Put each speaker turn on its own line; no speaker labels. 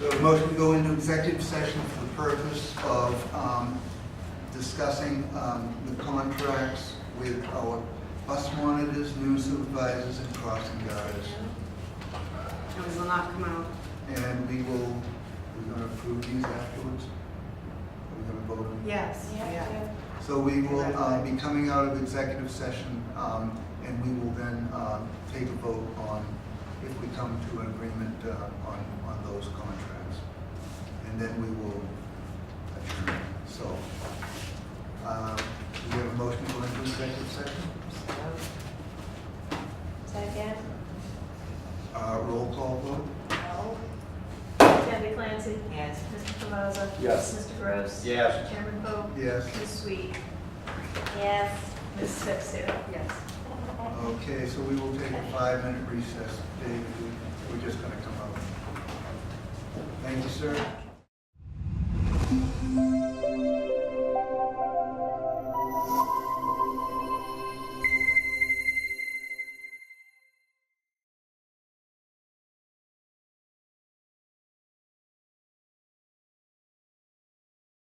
We have a motion to go into executive session for the purpose of um, discussing um, the contracts with our bus monitors, new supervisors, and crossing guards.
And we will not come out.
And we will, we're gonna approve these afterwards? We're gonna vote on
Yes. Yeah.
So we will uh, be coming out of executive session, um, and we will then uh, take a vote on if we come to an agreement uh, on, on those contracts. And then we will adjourn. So, uh, do we have a motion to go into executive session?
Second.
Uh, Roll call vote?
Debbie Clancy.
Yes.
Mr. Cavazza.
Yes.
Mr. Gross.
Yes.
Chairman Poe.
Yes.
Ms. Sweet.
Yes.
Ms. Sexton.
Yes.
Okay, so we will take a five-minute recess. Dave, we- we're just gonna come out. Thank you, sir.